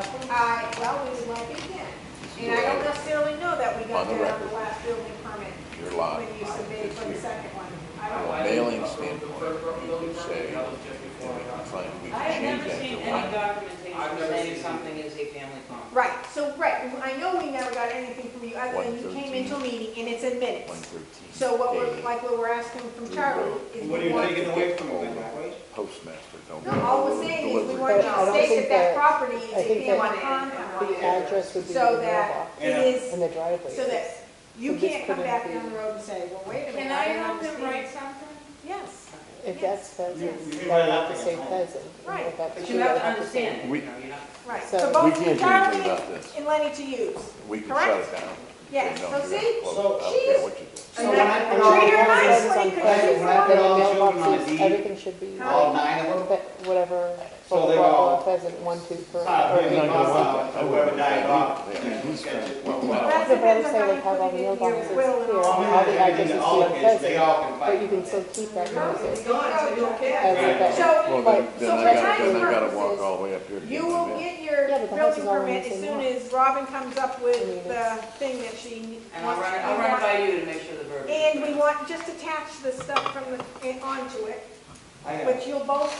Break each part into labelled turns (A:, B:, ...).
A: I, well, we went again. And I don't necessarily know that we got that on the last building permit
B: You're lying.
A: when you submitted for the second one. I
B: From
A: don't know.
B: a mailing standpoint, you could say, and we can claim, we
C: I
B: can
C: have
B: change
C: never
B: that
C: seen
B: to
C: any
B: one.
C: documentation
D: I've never
C: saying
D: seen-
C: something is a family farm.
A: Right, so, right, I know we never got anything from you, other than you came
B: 113.
A: into a meeting and it's in
B: One
A: minutes.
B: thirteen.
A: So what we're, like what we're asking from Charlie is.
D: What are you
A: we want-
D: taking away from them, Mike?
B: Postmaster, don't.
A: No, all we're saying is we
B: Delivery.
A: want you
E: But I
A: to
E: don't
A: state that that
E: think that-
A: property is
E: I
A: a
E: think
A: family
E: that-
A: common.
E: The address would be the
A: So that
E: mailbox
A: it
E: and
A: is,
E: the driveway.
A: so that you
E: So this
A: can't come
E: couldn't
A: back
E: be-
A: down the road and say, well, wait a minute.
C: Can I
A: didn't
C: help him
A: understand."
C: write something?
A: Yes,
E: If that's
D: You-
E: pheasant,
D: you can write
E: that
D: it
E: would
D: up
E: have to
D: in
E: say
D: your home.
E: pheasant.
A: Right.
C: But you have to understand,
B: We-
C: it, you know, you're not.
A: right.
E: So-
A: So
B: We
A: both
B: can't do anything
A: Charlie
B: about this.
A: and Lenny to use.
B: We can shut
A: Correct?
B: it down.
A: Yeah,
B: Say,
A: so
B: no, you have to
A: see,
B: close it. I don't
A: she's-
B: care what you do.
D: So when I put all
A: Treat her
D: the
A: nice.
D: children,
A: when you could choose
E: When I
D: one.
E: put all the
D: Children on
E: mailboxes,
D: deed.
E: everything should be,
D: all nine of them,
E: but whatever,
D: So
E: blah,
D: they're
E: blah,
D: all-
E: blah, pheasant, one, two, three.
D: uh,
E: or-
D: maybe
B: No, no,
D: Bob,
B: no, no.
D: whoever died off.
B: Yeah.
D: and who's got it, well,
B: Well,
E: That's
A: That's
E: the
A: depends on how you
E: better say they have
A: put
E: all the
A: it in
E: mailboxes
A: your will and
D: I'm gonna have
A: all
E: clear, all the addresses
D: everything to all
E: say
D: kids, they
E: pheasant,
D: all can
E: but you
D: fight.
E: can still keep that
A: It's
E: notice.
A: gone, so you
E: As a
D: Right.
E: pheasant.
A: So,
B: Well, then,
E: But-
A: so for
B: then I gotta, then I gotta
A: time
B: walk
A: purposes,
B: all the way up here to get
A: you will
B: my mail.
A: get your
E: Yeah, but the house
A: building
E: is all in the
A: permit as
E: same
A: soon
E: lot.
A: as Robin comes up
E: I mean,
A: with the
E: it's-
A: thing that she
C: And I'll
A: wants
C: run,
A: to.
C: it- I'll run it by you to make sure the verbiage. is
A: And we
C: right.
A: want, just attach the stuff from the, eh, onto it,
D: I got it.
A: which you'll both,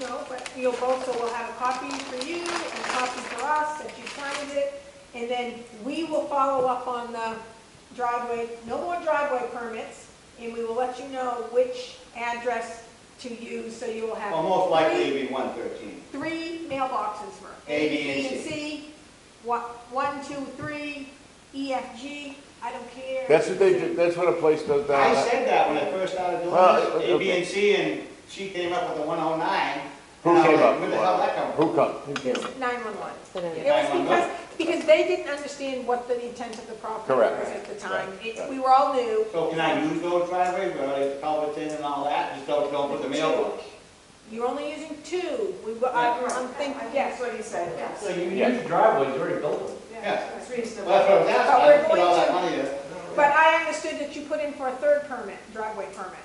A: no, but you'll both, so we'll have a copy for you and a copy for us, that you signed it. And then we will follow up on the driveway, no more driveway permits, and we will let you know which address to use, so you will have.
D: Well, most likely
A: three-
D: it'd be one thirteen.
A: Three mailboxes for.
D: A, B, and C.
A: C, one, one, two, three, E, F, G, I don't care.
B: That's what they, do- that's what a place does down
D: I
B: there.
D: said that when I first started doing
B: uh, Well,
D: this, A, B,
B: okay.
D: and C, and she came up with the one oh nine.
B: Who came up? oh
D: Where the hell that come from?
B: Who come? Who came?
A: Nine-one-one.
E: And then-
A: It was because, because they didn't understand what the intent of the property
B: Correct.
A: was at the time.
B: Right,
A: It-
B: right.
A: We were all new.
D: So can I use those driveways, where I culvert in and all that, just don't, don't put the mailbox?
A: You're only using two. We, were- I- I'm thinking, yes.
F: what he said,
G: So you
B: Yeah.
G: use driveways, you already built them.
D: Yeah.
F: That's
D: Well,
F: reasonable.
D: that's what I was asking, I
A: But we're
D: just put all
A: going
D: that
A: to-
D: money there
A: But I understood that you put in for a third permit, driveway permit,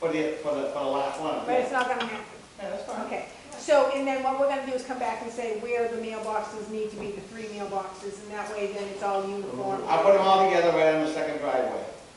D: for the, for the, for the last one.
A: but it's not gonna happen.
D: Yeah, that's fine.
A: Okay, so, and then what we're gonna do is come back and say where the mailboxes need to be, the three mailboxes, and that way then it's all uniform.
D: I'll put them all together right on the second driveway.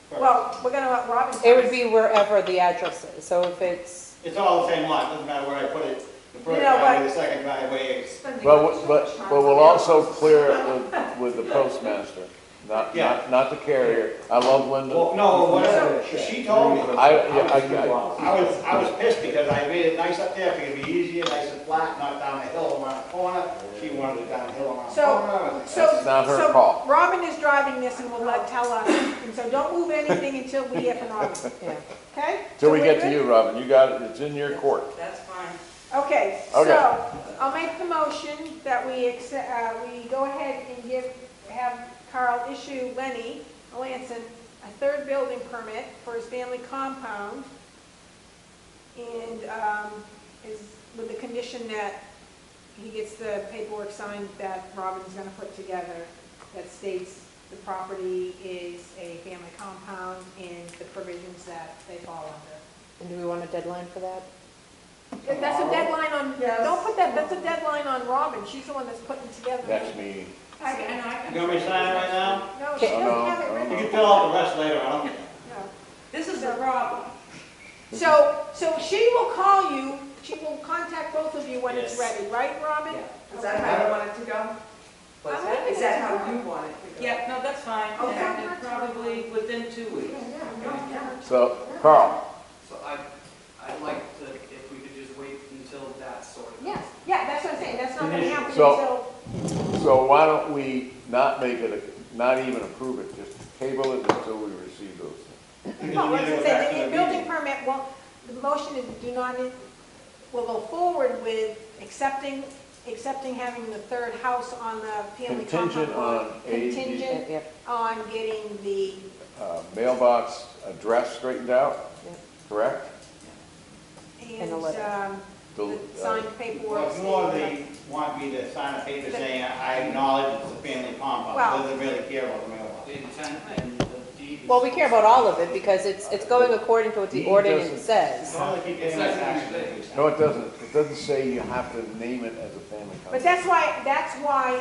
D: Perfect.
A: Well, we're gonna let Robin.
E: It would be wherever the address is, so if it's,
D: It's all the same lot, doesn't matter where I put it, the first
A: No,
D: driveway,
A: but-
D: the second driveway, it's-
B: But, but, but we'll also clear it with, with the postmaster, not,
D: Yeah.
B: not, not the carrier. I love
D: well,
B: Linda.
D: no, whatever, she told me.
B: I- yeah, I-
D: I was, I was pissed because I made it nice up there, I figured it'd be easier, nice and flat, not down the hill around the corner. She wanted it down the hill around the
A: So-
D: corner.
A: So,
B: That's not her
A: so
B: call.
A: Robin is driving this and will let, tell us, and so don't move anything until we hear from Robin,
E: yeah.
A: okay?
B: Till we
A: So
B: get
A: we're
B: to
A: good?
B: you, Robin, you got it, it's in your court.
C: That's fine.
A: Okay,
B: Okay.
A: so, I'll make the motion that we accept, uh, we go ahead and give, have Carl issue Lenny Melanson a third building permit for his family compound. And, um, is, with the condition that he gets the paperwork signed that Robin's gonna put together that states the property is a family compound and the provisions that they fall under.
E: And do we want a deadline for that?
A: That's a deadline on,
F: Yes.
A: don't put that, that's a deadline on Robin, she's the one that's putting together.
B: Next meeting.
C: I can- I know, I can-
D: You want me to sign it right now?
A: No, she
B: Oh, no,
A: doesn't have it
B: oh,
D: You
A: written,
D: can fill out the rest later, I don't care.
A: no.
C: This is a problem.
A: So, so she will call you, she will contact both of you when it's
D: Yes.
A: ready, right, Robin?
F: Is that how you want it to go?
C: What's
A: I'm
C: that?
F: Is that how you want it to go?
C: Yeah, no, that's fine.
A: Okay.
C: And it Probably within two weeks.
B: So, Carl,
H: So I, I'd like to, if we could just wait until that's sorted.
A: Yes, yeah, that's what I'm saying, that's not gonna happen
B: So-
A: until,
B: so why don't we not make it, a- not even approve it, just table it until we receive those.
D: Because
A: well,
D: you need
A: once
D: to go
A: it
D: back
A: says,
D: to
A: the
D: the
A: building
D: meeting.
A: permit won't, the motion is do not, in- will go forward with accepting, accepting having the third house on the family compound.
B: Contingent
A: lot,
B: on AG.
A: Contingient
E: Yep.
A: on getting the,
B: Uh, mailbox address straightened out,
E: Yeah.
B: correct?
A: and,
E: a letter.
A: um,
B: The,
A: the
B: uh,
A: signed paperwork.
D: Well, More they want me to sign a paper saying I acknowledge it's a family compound,
A: Well-
D: doesn't really care about the mailbox.
H: The intent and the deed. is-
E: Well, we care about all of it because it's, it's going according to what the
B: He doesn't-
E: ordinance says.
D: Why do they keep getting
H: It's
D: my
H: not gonna
D: taxes
H: be
D: increased?
B: No, it doesn't, it doesn't say you have to name it as a family compound.
A: But that's why, that's why